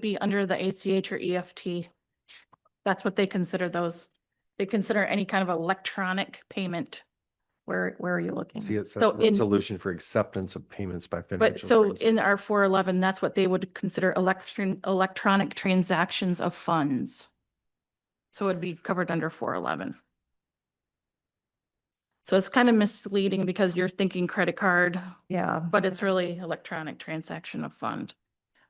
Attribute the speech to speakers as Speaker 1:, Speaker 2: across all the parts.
Speaker 1: be under the ACH or EFT. That's what they consider those. They consider any kind of electronic payment. Where, where are you looking?
Speaker 2: See, it's
Speaker 1: So
Speaker 2: a
Speaker 1: in-
Speaker 2: solution for acceptance of payments by
Speaker 1: But
Speaker 2: financial.
Speaker 1: so
Speaker 2: trans-
Speaker 1: in our four eleven, that's what they would consider election, electronic transactions of funds. So it'd be covered under four eleven. So it's kind of misleading because you're thinking credit card,
Speaker 3: Yeah,
Speaker 1: but it's really electronic transaction of fund.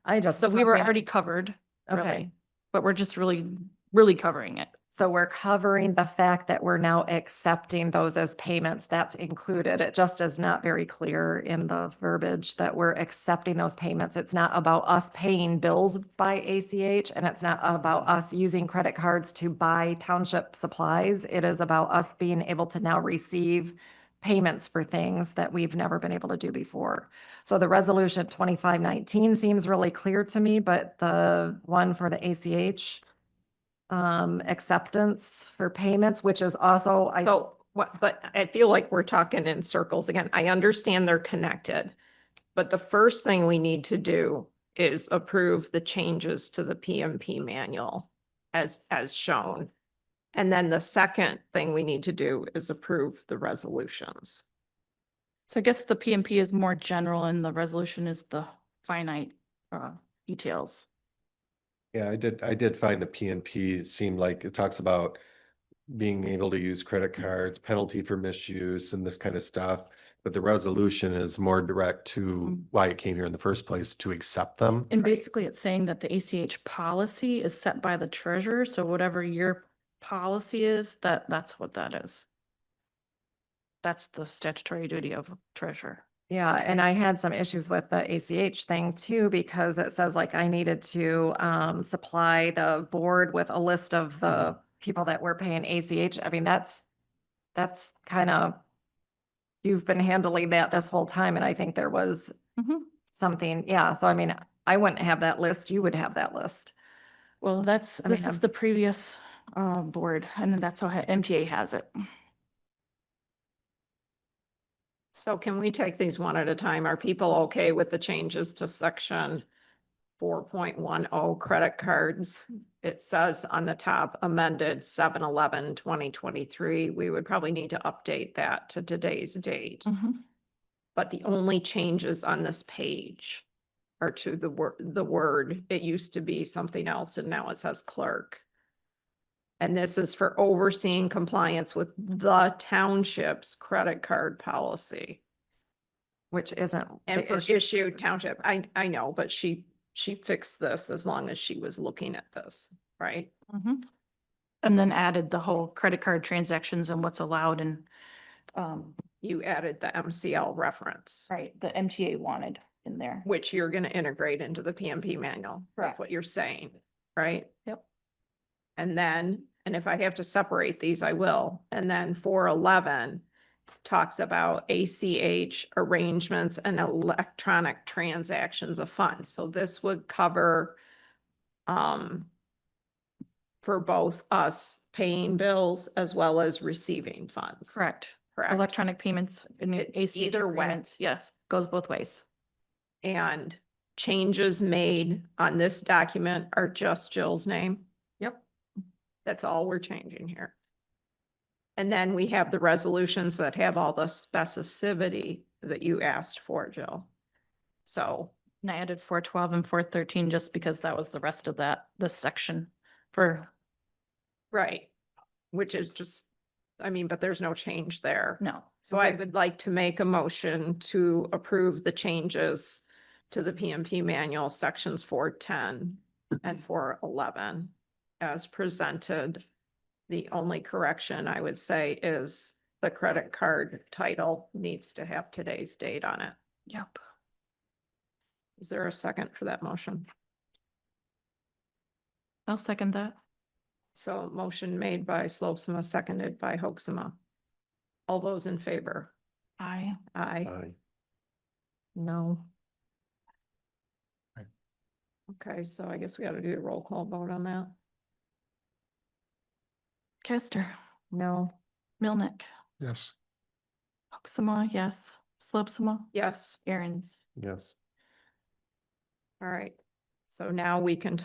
Speaker 3: I just.
Speaker 1: So we were already covered,
Speaker 3: Okay,
Speaker 1: really, but we're just really, really covering it.
Speaker 3: so we're covering the fact that we're now accepting those as payments. That's included. It just is not very clear in the verbiage that we're accepting those payments. It's not about us paying bills by ACH and it's not about us using credit cards to buy township supplies. It is about us being able to now receive payments for things that we've never been able to do before. So the resolution twenty-five nineteen seems really clear to me, but the one for the ACH um, acceptance for payments, which is also, I,
Speaker 4: So what, but I feel like we're talking in circles again. I understand they're connected. But the first thing we need to do is approve the changes to the PMP manual as, as shown. And then the second thing we need to do is approve the resolutions.
Speaker 1: So I guess the PMP is more general and the resolution is the finite uh details.
Speaker 2: Yeah, I did, I did find the PNP seemed like it talks about being able to use credit cards, penalty for misuse and this kind of stuff. But the resolution is more direct to
Speaker 1: Mm.
Speaker 2: why it came here in the first place, to accept them.
Speaker 1: And basically it's saying that the ACH policy is set by the treasurer, so whatever your policy is, that that's what that is. That's the statutory duty of treasurer.
Speaker 3: yeah, and I had some issues with the ACH thing too, because it says like I needed to, um, supply the board with a list of the people that were paying ACH. I mean, that's, that's kind of, you've been handling that this whole time, and I think there was
Speaker 4: Mm-hmm.
Speaker 1: Mhm.
Speaker 3: something, yeah, so I mean, I wouldn't have that list, you would have that list.
Speaker 1: Well, that's,
Speaker 3: I mean,
Speaker 1: this is
Speaker 3: I'm-
Speaker 1: the previous uh board and that's how ha- MTA has it.
Speaker 4: So can we take these one at a time? Are people okay with the changes to section four point one oh credit cards? It says on the top amended 7-11-2023. We would probably need to update that to today's date.
Speaker 3: Mm-hmm.
Speaker 1: Mhm.
Speaker 4: But the only changes on this page are to the word, the word, it used to be something else and now it says clerk. And this is for overseeing compliance with the township's credit card policy.
Speaker 3: Which isn't.
Speaker 4: And
Speaker 3: the
Speaker 4: for
Speaker 3: issue.
Speaker 4: issue township, I, I know, but she, she fixed this as long as she was looking at this, right?
Speaker 3: Mm-hmm.
Speaker 1: Mhm. And then added the whole credit card transactions and what's allowed and um
Speaker 4: You added the MCL reference,
Speaker 1: Right, the MTA wanted in there.
Speaker 4: which you're gonna integrate into the PMP manual. That's
Speaker 1: Correct.
Speaker 4: what you're saying, right?
Speaker 1: Yep.
Speaker 4: And then, and if I have to separate these, I will. And then four eleven talks about ACH arrangements and electronic transactions of funds. So this would cover um for both us paying bills as well as receiving funds.
Speaker 1: Correct.
Speaker 4: Correct.
Speaker 1: Electronic payments and
Speaker 4: It's
Speaker 1: ACH
Speaker 4: either way.
Speaker 1: payments, yes, goes both ways.
Speaker 4: And changes made on this document are just Jill's name.
Speaker 1: Yep.
Speaker 4: That's all we're changing here. And then we have the resolutions that have all the specificity that you asked for, Jill. So,
Speaker 1: And I added four twelve and four thirteen just because that was the rest of that, this section for,
Speaker 4: right, which is just, I mean, but there's no change there.
Speaker 1: no.
Speaker 4: So I would like to make a motion to approve the changes to the PMP manual, sections four ten and four eleven as presented. The only correction I would say is the credit card title needs to have today's date on it.
Speaker 1: Yep.
Speaker 4: Is there a second for that motion?
Speaker 1: I'll second that.
Speaker 4: So motion made by Slopsma, seconded by Hoaxma. All those in favor?
Speaker 1: I,
Speaker 4: Aye.
Speaker 2: Aye.
Speaker 3: No.
Speaker 4: Okay, so I guess we ought to do a roll call vote on that.
Speaker 1: Kester,
Speaker 3: No,
Speaker 1: Milnick,
Speaker 5: Yes.
Speaker 1: Hoaxma, yes, Slopsma,
Speaker 4: Yes.
Speaker 1: Aaron's.
Speaker 2: Yes.
Speaker 4: All right, so now we can